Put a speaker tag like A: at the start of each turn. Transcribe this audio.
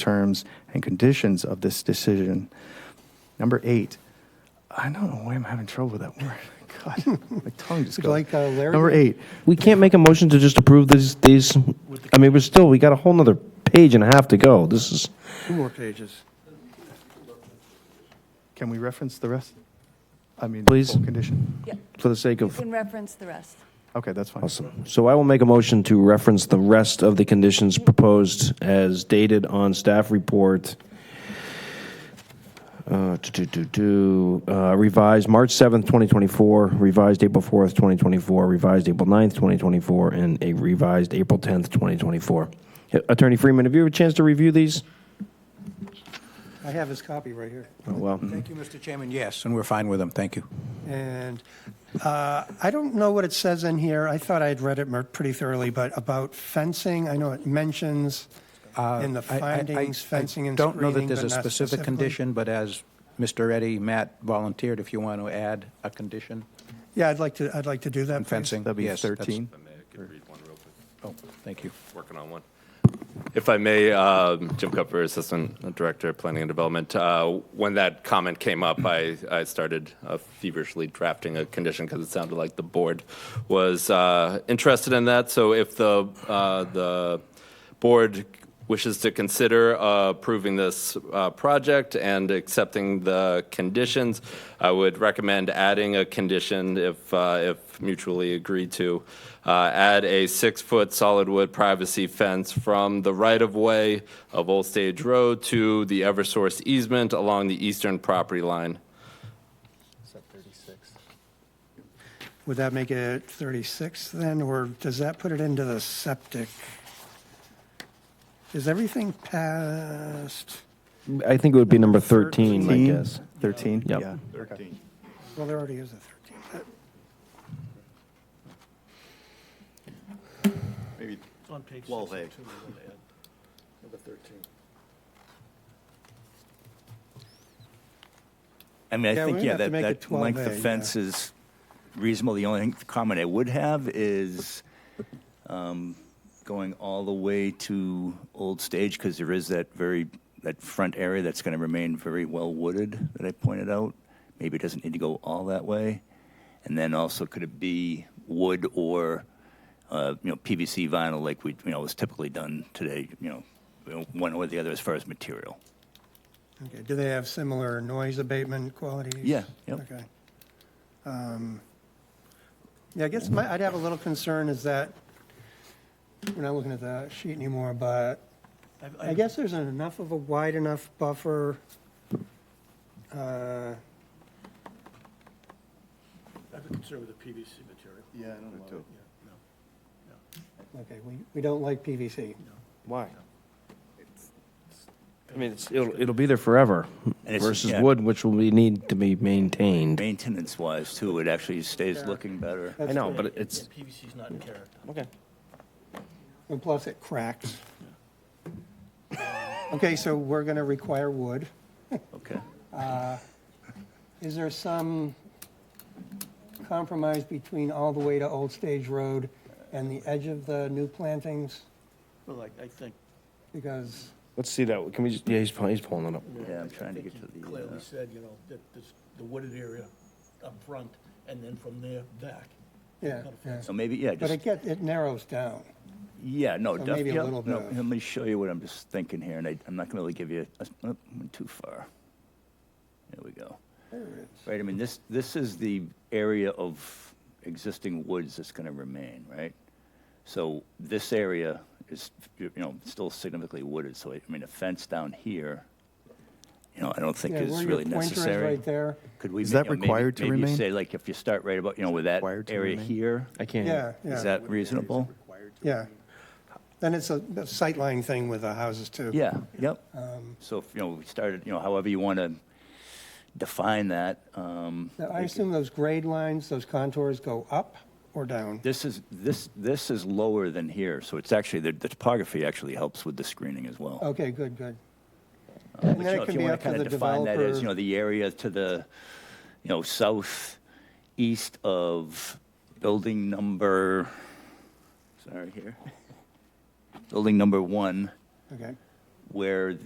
A: terms and conditions of this decision. Number eight, I don't know why I'm having trouble with that word. God, my tongue just goes.
B: Would you like, uh, Larry?
A: Number eight,
C: We can't make a motion to just approve these, these, I mean, we're still, we got a whole nother page and a half to go. This is,
D: Two more pages.
A: can we reference the rest? I mean, the
C: Please.
A: full condition?
E: Yeah,
C: for the sake
E: you
C: of,
E: can reference the rest.
A: Okay, that's fine.
C: awesome. So I will make a motion to reference the rest of the conditions proposed as dated on staff report. Uh, to, to, to, uh, revised March 7th, 2024, revised April 4th, 2024, revised April 9th, 2024, and a revised April 10th, 2024. Attorney Freeman, have you had a chance to review these?
B: I have his copy right here.
C: Oh, well.
D: Thank you, Mr. Chairman, yes, and we're fine with them, thank you.
B: And uh, I don't know what it says in here. I thought I had read it mer- pretty thoroughly, but about fencing, I know it mentions in the
D: Uh, I- I- I-
B: findings, fencing and
D: I don't know
B: screening,
D: that there's
B: but
D: a
B: not
D: specific
B: specifically.
D: condition, but as Mr. Eddy, Matt volunteered, if you want to add a condition
B: Yeah, I'd like to, I'd like to do that.
D: on
B: please.
D: fencing.
A: That'd be
D: yes, that's-
A: 13.
D: Oh, thank you.
F: working on one. If I may, um, Jim Cupfer, Assistant Director of Planning and Development, uh, when that comment came up, I, I started uh, feverishly drafting a condition because it sounded like the board was uh, interested in that. So if the, uh, the board wishes to consider uh, approving this uh, project and accepting the conditions, I would recommend adding a condition if, uh, if mutually agreed to. Uh, Add a six-foot solid wood privacy fence from the right-of-way of Old Stage Road to the Eversource easement along the eastern property line.
B: Would that make it 36 then, or does that put it into the septic? Is everything past,
C: I think it would be number 13, I guess.
A: 13?
C: Yep.
A: Yeah.
B: well, there already is a 13. but-
G: Maybe 12A. Number 13. I mean,
B: Yeah,
G: I think,
B: we'd
G: yeah,
B: have to
G: that,
B: make it
G: that length
B: 12A,
G: of
B: yeah.
G: fence is reasonable. The only comment I would have is um, going all the way to Old Stage, because there is that very, that front area that's going to remain very well wooded that I pointed out. Maybe it doesn't need to go all that way. And then also, could it be wood or, uh, you know, PVC vinyl like we, you know, is typically done today, you know, you know, one or the other as far as material?
B: Okay, do they have similar noise abatement qualities?
G: Yeah, yep.
B: Okay. Um, Yeah, I guess my, I'd have a little concern is that, we're not looking at the sheet anymore, but I guess there's enough of a wide enough buffer. uh,
G: Yeah, I don't know.
B: Okay, we, we don't like PVC.
C: Why? I mean, it's, it'll, it'll be there forever
G: And it's-
C: versus
G: yeah.
C: wood, which will be, need to be maintained.
G: Maintenance wise too, it actually stays looking better.
B: Uh,
C: I know, but it's,
H: PVC's not in character.
C: okay.
B: And plus it cracks. Okay, so we're going to require wood.
G: Okay.
B: Is there some compromise between all the way to Old Stage Road and the edge of the new plantings?
H: Well, I, I think
B: Because,
C: Let's see that, can we just, yeah, he's, pull- he's pulling it up.
G: Yeah, I'm trying to
H: I
G: get
H: think
G: to
H: you
G: the. uh,
H: clearly said, you know, that this, the wooded area up front, and then from there back.
B: yeah, yeah.
G: So maybe, yeah,
B: But
G: just,
B: it get, it narrows down.
G: yeah, no,
B: so
G: def-
B: maybe a
G: yeah,
B: little
G: no,
B: bit of-
G: Let me show you what I'm just thinking here, and I, I'm not gonna really give you, a- oh, went too far. There we go. Right, I mean, this, this is the area of existing woods that's gonna remain, right? So this area is, you know, still significantly wooded, so I, I mean, a fence down here, you know, I don't think
B: Yeah, where
G: is
B: your
G: really
B: Pointer is
G: necessary.
B: right there.
G: Could we?
A: Is
G: ma-
A: that
G: you know, maybe-
A: required to
G: Maybe
A: remain?
G: you say, like, if you start right about, you know, with that
A: required to
G: area
A: remain?
G: here,
C: I can't.
B: Yeah,
G: is
B: yeah,
G: that reasonable?
B: yeah. Then it's a a sightline thing with the houses too. Um,
G: Yeah, yep. So, if, you know, we started, you know, however you want to define that. um,
B: Now, I assume those grade lines, those contours go up or down?
G: This is, this, this is lower than here, so it's actually, the the topography actually helps with the screening as well.
B: Okay, good, good.
G: Uh,
B: and
G: but,
B: then
G: you
B: it
G: know, if
B: can
G: you
B: be
G: wanna
B: up to
G: kinda
B: the
G: define that as,
B: developer-
G: You know, the area to the, you know, south, east of building number, sorry, here. Building number one,
B: Okay.
G: where